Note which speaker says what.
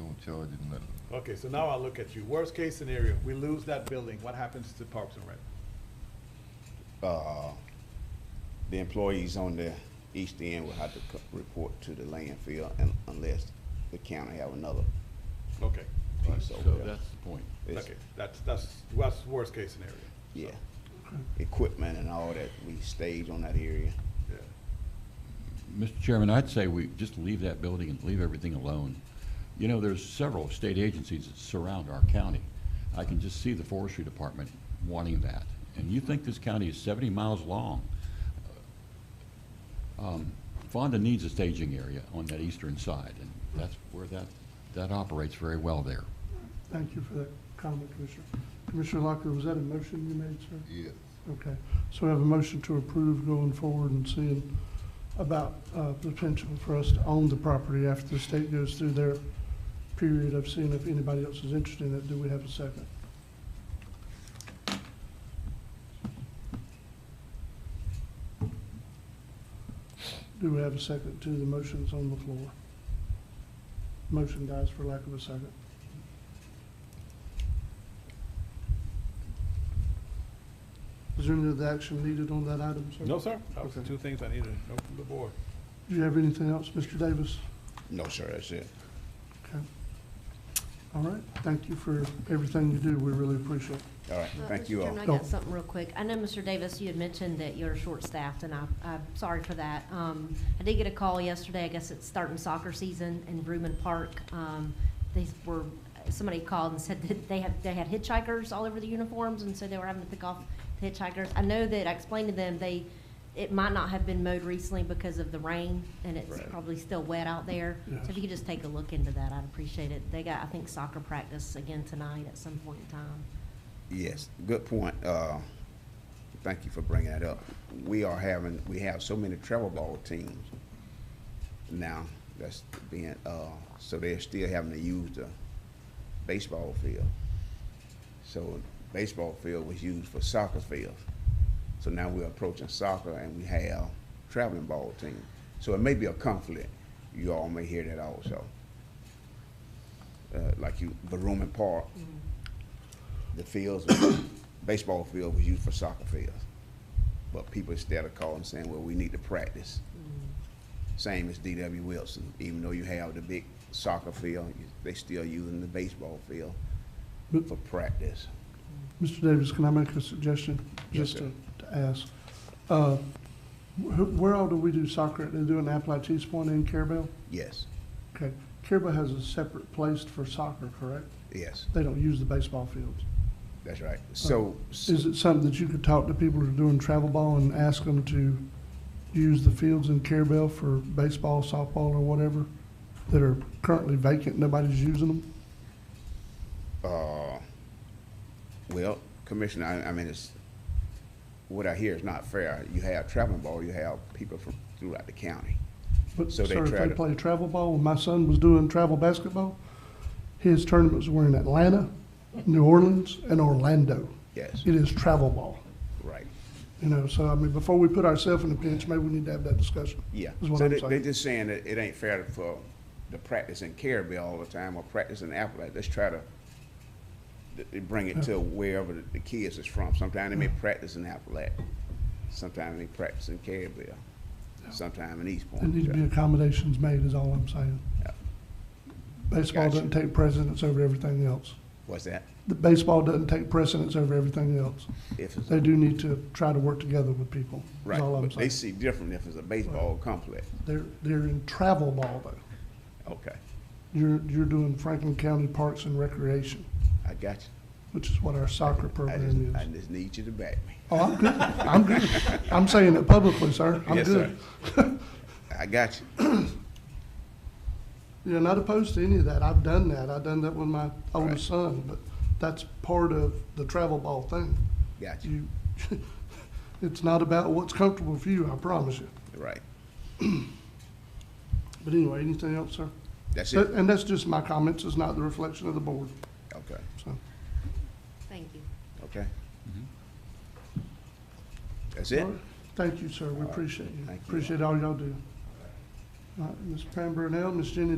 Speaker 1: won't charge you nothing.
Speaker 2: Okay, so now I look at you. Worst case scenario, we lose that building, what happens to Parks and Rec?
Speaker 3: uh, the employees on the east end will have to co- report to the landfill un- unless the county have another
Speaker 2: Okay,
Speaker 3: piece over
Speaker 4: So
Speaker 3: there.
Speaker 4: that's the point.
Speaker 3: It's-
Speaker 2: okay, that's, that's, that's worst case scenario.
Speaker 3: Yeah. Equipment and all that, we stage on that area.
Speaker 2: Yeah.
Speaker 4: Mr. Chairman, I'd say we just leave that building and leave everything alone. You know, there's several state agencies that surround our county. I can just see the forestry department wanting that. And you think this county is seventy miles long? Um, Fonda needs a staging area on that eastern side, and that's where that, that operates very well there.
Speaker 5: Thank you for that comment, Commissioner. Commissioner Lockwood, was that a motion you made, sir?
Speaker 1: Yes.
Speaker 5: Okay, so we have a motion to approve going forward and seeing about uh, the potential for us to own the property after the state goes through their period of seeing if anybody else is interested in it. Do we have a second? Do we have a second to the motions on the floor? Motion dies for lack of a second. Is there any other action needed on that item, sir?
Speaker 2: No, sir, that was
Speaker 5: Okay.
Speaker 2: two things I needed to know from the board.
Speaker 5: Do you have anything else, Mr. Davis?
Speaker 3: No, sir, that's it.
Speaker 5: Okay. All right, thank you for everything you do, we really appreciate it.
Speaker 3: All right,
Speaker 6: Uh,
Speaker 3: thank
Speaker 6: Mr.
Speaker 3: you all.
Speaker 6: Chairman, I
Speaker 5: Go.
Speaker 6: got something real quick. I know, Mr. Davis, you had mentioned that you're short-staffed, and I, I'm sorry for that. Um, I did get a call yesterday, I guess it's starting soccer season in Bruman Park. Um, they were, somebody called and said that they had, they had hitchhikers all over the uniforms, and so they were having to pick off the hitchhikers. I know that I explained to them, they, it might not have been mowed recently because of the rain, and it's
Speaker 3: Right.
Speaker 6: probably still wet out there. So if you could just take a look into that, I'd appreciate it. They got, I think, soccer practice again tonight at some point in time.
Speaker 3: Yes, good point. Uh, Thank you for bringing that up. We are having, we have so many travel ball teams now that's being, uh, so they're still having to use the baseball field. So baseball field was used for soccer field. So now we're approaching soccer and we have traveling ball team. So it may be a conflict. You all may hear that also. Uh, Like you, Baroman Park, the fields, baseball field was used for soccer fields. But people instead of calling saying, well, we need to practice. Same as DW Wilson, even though you have the big soccer field, you- they still using the baseball field
Speaker 5: But-
Speaker 3: for practice.
Speaker 5: Mr. Davis, can I make a suggestion?
Speaker 3: Yes,
Speaker 5: Just
Speaker 3: sir.
Speaker 5: to to ask. Uh, wh- Where all do we do soccer? They do in Appalachia's Point and Carabel?
Speaker 3: Yes,
Speaker 5: Okay, Carabel has a separate place for soccer, correct?
Speaker 3: yes,
Speaker 5: They don't use the baseball fields.
Speaker 3: that's right. So,
Speaker 5: Uh, Is it something that you could talk to people who are doing travel ball and ask them to use the fields in Carabel for baseball, softball, or whatever that are currently vacant, nobody's using them?
Speaker 3: uh, well, Commissioner, I, I mean, it's, what I hear is not fair. You have traveling ball, you have people from throughout the county.
Speaker 5: But
Speaker 3: So
Speaker 5: sir,
Speaker 3: they
Speaker 5: if
Speaker 3: try
Speaker 5: they
Speaker 3: to-
Speaker 5: play travel ball, when my son was doing travel basketball, his tournaments were in Atlanta, New Orleans, and Orlando.
Speaker 3: Yes,
Speaker 5: It is travel ball,
Speaker 3: right.
Speaker 5: you know, so I mean, before we put ourselves in a pinch, maybe we need to have that discussion.
Speaker 3: Yeah,
Speaker 5: Is what
Speaker 3: so
Speaker 5: I'm
Speaker 3: they,
Speaker 5: saying.
Speaker 3: they're just saying that it ain't fair for the practice in Caribbean all the time or practice in Appalachia. Let's try to th- they bring it to wherever the, the kids is from. Sometimes they may practice in Appalachia, sometimes they practice in Caribbean, sometimes in East
Speaker 5: There need to be
Speaker 3: Point.
Speaker 5: accommodations made is all I'm saying.
Speaker 3: Yeah.
Speaker 5: Baseball
Speaker 3: Gotcha.
Speaker 5: doesn't take precedence over everything else.
Speaker 3: What's that?
Speaker 5: The baseball doesn't take precedence over everything else.
Speaker 3: If it's,
Speaker 5: They do need to try to work together with people, is
Speaker 3: right,
Speaker 5: all I'm
Speaker 3: but they
Speaker 5: saying.
Speaker 3: see different if it's a baseball complex.
Speaker 5: They're, they're in travel ball though.
Speaker 3: Okay,
Speaker 5: You're, you're doing Franklin County Parks and Recreation,
Speaker 3: I got you.
Speaker 5: which is what our
Speaker 3: I
Speaker 5: soccer
Speaker 3: just,
Speaker 5: program
Speaker 3: I
Speaker 5: is.
Speaker 3: just need you to back me.
Speaker 5: Oh, I'm good, I'm good. I'm saying it publicly, sir. I'm
Speaker 3: Yes, sir.
Speaker 5: good.
Speaker 3: I got you.
Speaker 5: Yeah, not opposed to any of that. I've done that. I've done that with my oldest son, but that's part of the travel ball thing.
Speaker 3: Got you.
Speaker 5: You, it's not about what's comfortable for you, I promise you.
Speaker 3: Right.
Speaker 5: But anyway, anything else, sir?
Speaker 3: That's
Speaker 5: That-
Speaker 3: it.
Speaker 5: And that's just my comments. It's not the reflection of the board,
Speaker 3: Okay,
Speaker 5: so.
Speaker 6: Thank you.
Speaker 3: okay. That's it?
Speaker 5: Mm-hmm. All right. Thank you, sir. We appreciate you.
Speaker 3: Thank you.
Speaker 5: Appreciate all y'all do. All right, Ms. Pam Brunel, Ms. Jenny